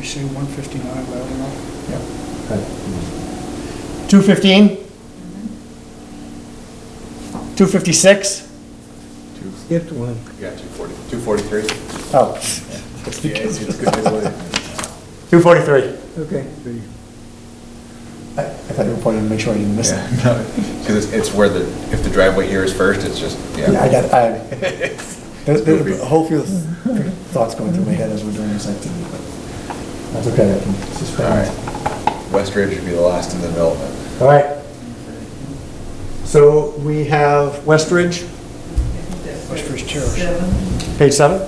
say 159 loud enough? Yeah. Two fifteen? Two fifty-six? Two, Skipped one. yeah, two forty, two forty-three. Oh. Yeah, it's it's good, it's late. Two forty-three. Okay. I thought you were pointing to make sure I didn't miss it. Yeah, no, Cause it's, it's where the, if the driveway here is first, it's just, Yeah, I yeah. got, I, there's, there's a whole few thoughts going through my head as we're doing this activity, but that's okay, I can All suspend. right. West Ridge would be the last in the development. All right. So we have West Ridge, West Ridge Terrace. Seven, page seven.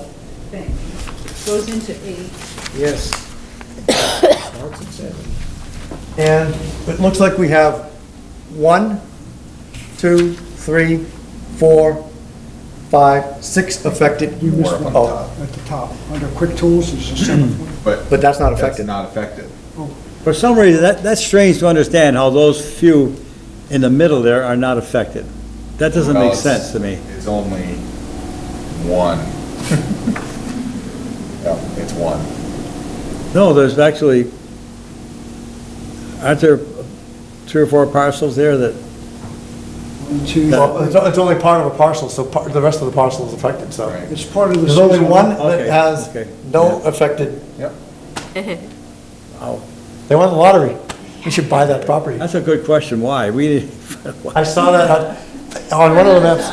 thank you. Goes into eight. Yes. Starts at seven. And it looks like we have one, two, three, four, five, six affected. You missed one Oh, at the top. Under Quick Tools is the seventh one. But But that's not that's affected. not affected. For some reason, that, that's strange to understand how those few in the middle there are not affected. That doesn't Well, make it's- sense to me. It's only one. No, it's one. No, there's actually, aren't there three or four parcels there that, One, two, Well, it's, it's only part of a parcel, so par- the rest of the parcel is affected, so. Right. It's part of the. There's only season. one that Okay, has okay. no affected, Yep. they won the lottery. We should buy that property. that's a good question, why? We, I saw that on- on one of the maps.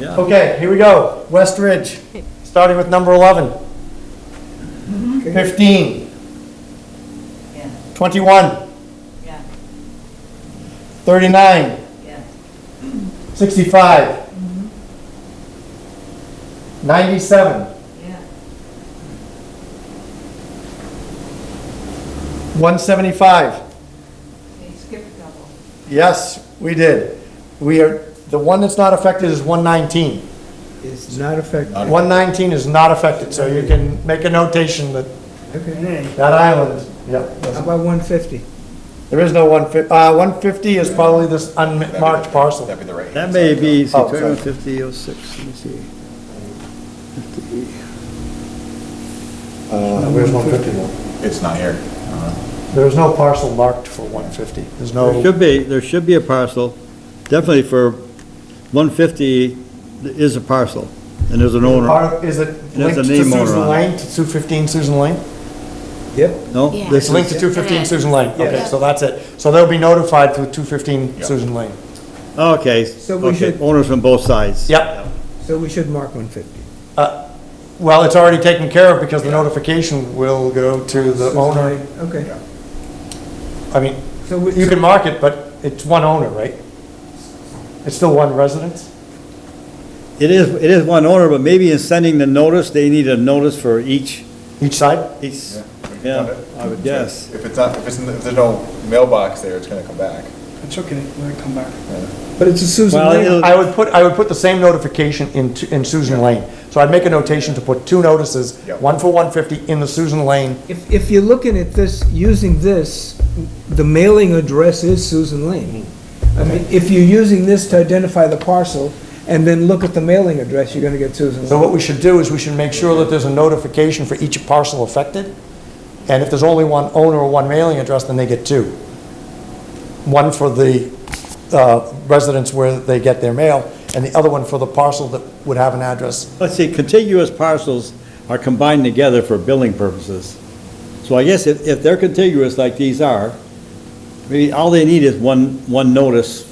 yeah. Okay, here we go. West Ridge, starting with number 11. 15, Yeah, 21, yeah, 39, yeah. 65, 97, Yeah, 175. okay, skip a couple. Yes, we did. We are, the one that's not affected is 119. It's not affected. 119 is not affected, so you can make a notation that Okay. Hey, that island, yep. How about 150? There is no 150, uh, 150 is probably this That'd be unmarked the- parcel. That'd be the right. That may be, see, Oh, sorry. 250, 06, let me see. 50. Uh, where's 150 though? It's not here. I don't know. Uh-huh. There is no parcel marked for 150. There's There no, should be, there should be a parcel, definitely for 150 is a parcel, and there's an owner. Part- is it a linked to name owner Susan on it. Lane, to 215 Susan Lane? Yep. No? Yeah. this It's linked to is- 215 is. Susan Lane. Okay, Yes. so that's it. So they'll be notified through 215 Yep. Susan Lane. Okay, So we okay, should- owners from both sides. Yep. Uh, So we should mark 150. Well, it's already taken care of because the notification will go to the owner. Okay. I mean, So we- you can mark it, but it's one owner, right? It's still one residence? It is, it is one owner, but maybe in sending the notice, they need a notice for each, Each side? each, Yeah. yeah, I would guess. If it's not, if it's, if there's no mailbox there, it's gonna come back. it's okay, let it come back. But it's a Susan Well, Lane. it'll- I would put, I would put the same notification in, Tu- in Susan Lane. So I'd make a notation to put two notices, Yep. one for 150 in the Susan Lane. If, if you're looking at this, using this, the mailing address is Susan Lane. I mean, if you're using this to identify the parcel and then look at the mailing address, you're gonna get Susan So Lane. what we should do is we should make sure that there's a notification for each parcel affected. And if there's only one owner or one mailing address, then they get two. One for the uh, residents where they get their mail, and the other one for the parcel that would have an address. Let's see, contiguous parcels are combined together for billing purposes. So I guess if, if they're contiguous like these are, maybe all they need is one, one notice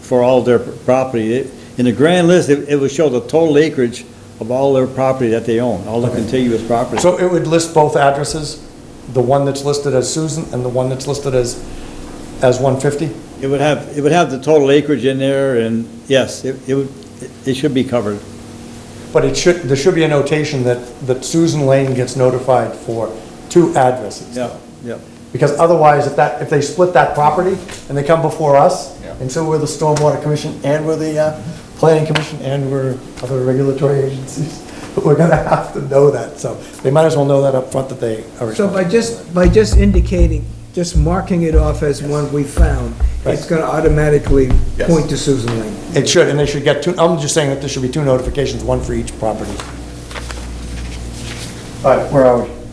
for all their property. It- In the grand list, it, it would show the total acreage of all their property that they own, all the contiguous property. So it would list both addresses, the one that's listed as Susan and the one that's listed as, as 150? It would have, it would have the total acreage in there and, yes, it, it would, it should be covered. But it should, there should be a notation that, that Susan Lane gets notified for two addresses. Yeah, yeah. Because otherwise, if that, if they split that property and they come before us, Yeah. and so we're the Stormwater Commission and we're the uh, Planning Commission and we're other regulatory agencies, but we're gonna have to know that, so they might as well know that up front that they are So by responsible. just, by just indicating, just marking it off as one we found, Right. it's gonna automatically Yes. point to Susan Lane. It should, and they should get two, I'm just saying that there should be two notifications, one for each property. All right, where are we?